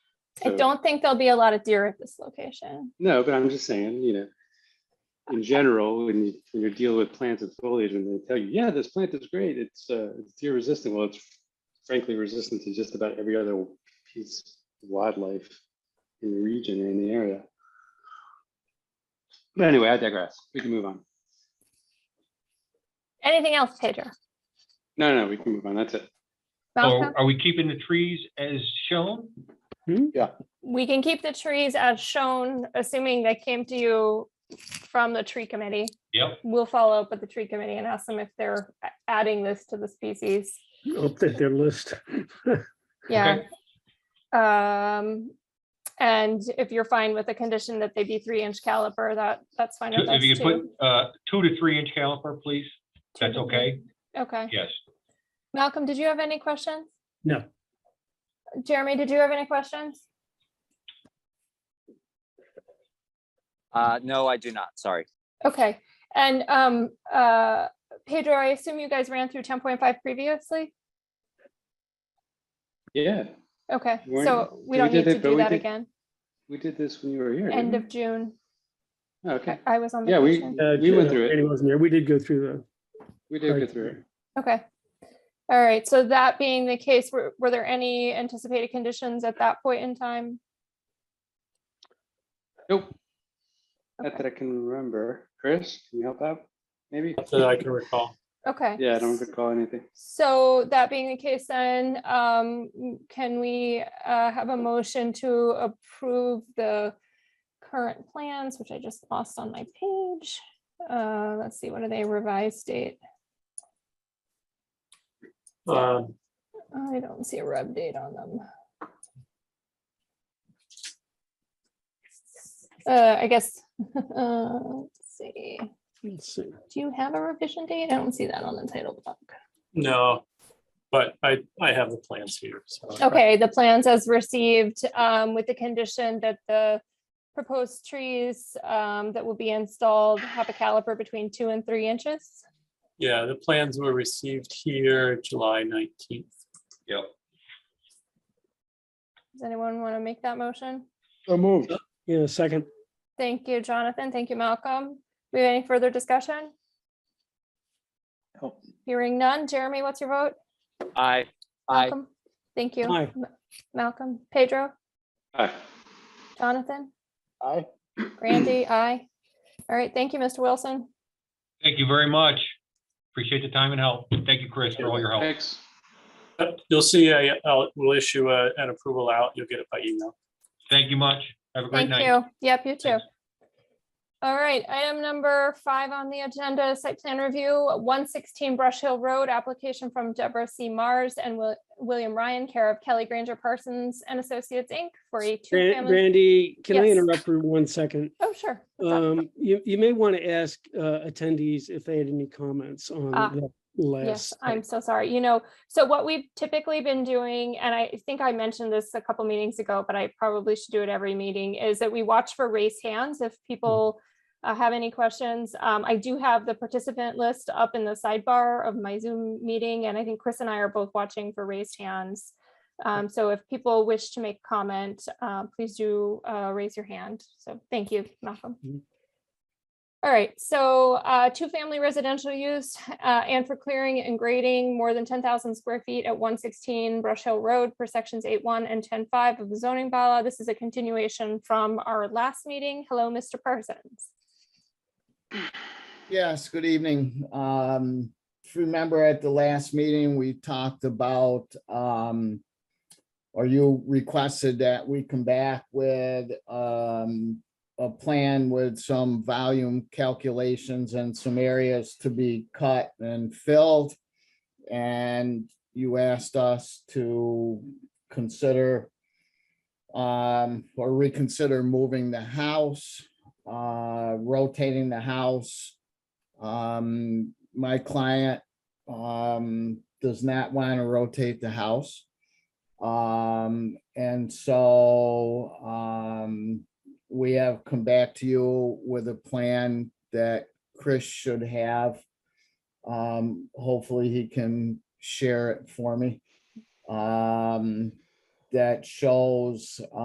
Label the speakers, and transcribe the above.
Speaker 1: I
Speaker 2: So-
Speaker 1: don't think there'll be a lot of deer at this location.
Speaker 2: No, but I'm just saying, you know, in general, when you, when you deal with plants and foliage and they tell you, yeah, this plant is great, it's, uh, it's deer resistant, well, it's frankly resistant to just about every other piece of wildlife in the region and in the area. But anyway, I digress. We can move on.
Speaker 1: Anything else,
Speaker 3: Oh.
Speaker 1: Pedro?
Speaker 2: No, no, we can move on. That's it.
Speaker 1: Malcolm?
Speaker 3: Or are we keeping the trees as shown?
Speaker 1: We can keep the trees as shown, assuming they came to you from the tree committee.
Speaker 3: Yep.
Speaker 1: We'll follow up with the tree committee and ask them if they're a- adding this to the species.
Speaker 4: update their list.
Speaker 1: Yeah. Um, and if you're fine with the condition that they be three inch caliper, that, that's fine with us
Speaker 3: If you could
Speaker 1: too.
Speaker 3: put uh, two to three inch caliper, please. That's
Speaker 1: Two to
Speaker 3: okay?
Speaker 1: three. Okay.
Speaker 3: Yes.
Speaker 1: Malcolm, did you have any questions?
Speaker 4: No.
Speaker 1: Jeremy, did you have any questions?
Speaker 5: Uh, no, I do not. Sorry.
Speaker 1: Okay, and um, uh, Pedro, I assume you guys ran through ten point five previously?
Speaker 2: Yeah,
Speaker 1: Okay,
Speaker 2: We're-
Speaker 1: so we
Speaker 2: we
Speaker 1: don't need
Speaker 2: did it,
Speaker 1: to
Speaker 2: but
Speaker 1: do
Speaker 2: we
Speaker 1: that
Speaker 2: did-
Speaker 1: again.
Speaker 2: we did this when you were here.
Speaker 1: End
Speaker 2: didn't
Speaker 1: of June,
Speaker 2: we? Oh, Okay,
Speaker 1: I- I was on
Speaker 2: Yeah, we-
Speaker 1: vacation.
Speaker 4: Uh,
Speaker 2: We went through it.
Speaker 4: Annie wasn't here. We did go through
Speaker 2: we did go through. it.
Speaker 1: Okay. All right, so that being the case, were, were there any anticipated conditions at that point in time?
Speaker 2: Nope. Not
Speaker 1: Okay.
Speaker 2: that I can remember. Chris, can you help out? Maybe?
Speaker 4: that I can recall.
Speaker 1: Okay.
Speaker 2: Yeah, I don't recall anything.
Speaker 1: So that being the case, then, um, can we, uh, have a motion to approve the current plans, which I just lost on my page? Uh, let's see, what are they revised date?
Speaker 2: Uh,
Speaker 1: I don't see a rev date on them. Uh, I guess, uh, let's see,
Speaker 4: Let's see.
Speaker 1: do you have a revision date? I don't see that on the title block.
Speaker 6: No, but I, I have the plans here, so.
Speaker 1: Okay, the plans as received, um, with the condition that the proposed trees, um, that will be installed have a caliper between two and three inches.
Speaker 6: Yeah, the plans were received here July nineteenth.
Speaker 3: Yep.
Speaker 1: Does anyone want to make that motion?
Speaker 2: So moved.
Speaker 4: Yeah, second.
Speaker 1: Thank you, Jonathan. Thank you, Malcolm. We have any further discussion?
Speaker 5: No.
Speaker 1: Hearing none. Jeremy, what's your vote?
Speaker 5: I, I,
Speaker 1: Malcolm? Thank you.
Speaker 4: Aye.
Speaker 1: Ma- Malcolm, Pedro,
Speaker 2: Aye.
Speaker 1: Jonathan,
Speaker 5: I.
Speaker 1: Randy, I. All right, thank you, Mr. Wilson.
Speaker 3: Thank you very much. Appreciate the time and help. Thank you, Chris, for all your help.
Speaker 2: Thanks.
Speaker 6: You'll see, I, I'll, we'll issue a, an approval out. You'll get it by email.
Speaker 3: Thank you much. Have a
Speaker 1: Thank
Speaker 3: great night.
Speaker 1: you. Yep, you too.
Speaker 3: Thanks.
Speaker 1: All right, item number five on the agenda, site plan review, one sixteen Brush Hill Road, application from Deborah C. Mars and Wil- William Ryan, care of Kelly Granger Parsons and Associates, Inc. for a
Speaker 4: Ran-
Speaker 1: two-family.
Speaker 4: Randy, can I
Speaker 1: Yes.
Speaker 4: interrupt for one second?
Speaker 1: Oh, sure. What's up?
Speaker 4: Um, you, you may want to ask uh, attendees if they had any comments on
Speaker 1: Ah,
Speaker 4: the
Speaker 1: Yes,
Speaker 4: last.
Speaker 1: I'm so sorry. You know, so what we've typically been doing, and I think I mentioned this a couple meetings ago, but I probably should do it every meeting, is that we watch for raised hands if people uh, have any questions. Um, I do have the participant list up in the sidebar of my Zoom meeting, and I think Chris and I are both watching for raised hands. Um, so if people wish to make comment, uh, please do uh, raise your hand. So thank you, Malcolm. All right, so uh, two-family residential use uh, and for clearing and grading more than 10,000 square feet at 116 Brush Hill Road per sections 8.1 and 10.5 of the zoning bylaw. This is a continuation from our last meeting. Hello, Mr. Parsons.
Speaker 7: Yes, good evening. Um, if you remember at the last meeting, we talked about, um, or you requested that we come back with, um, a plan with some volume calculations and some areas to be cut and filled. And you asked us to consider, um, or reconsider moving the house, uh, rotating the house, um, my client, um, does not want to rotate the house. Um, and so, um, we have come back to you with a plan that Chris should have. Um, hopefully he can share it for me. Um, that shows,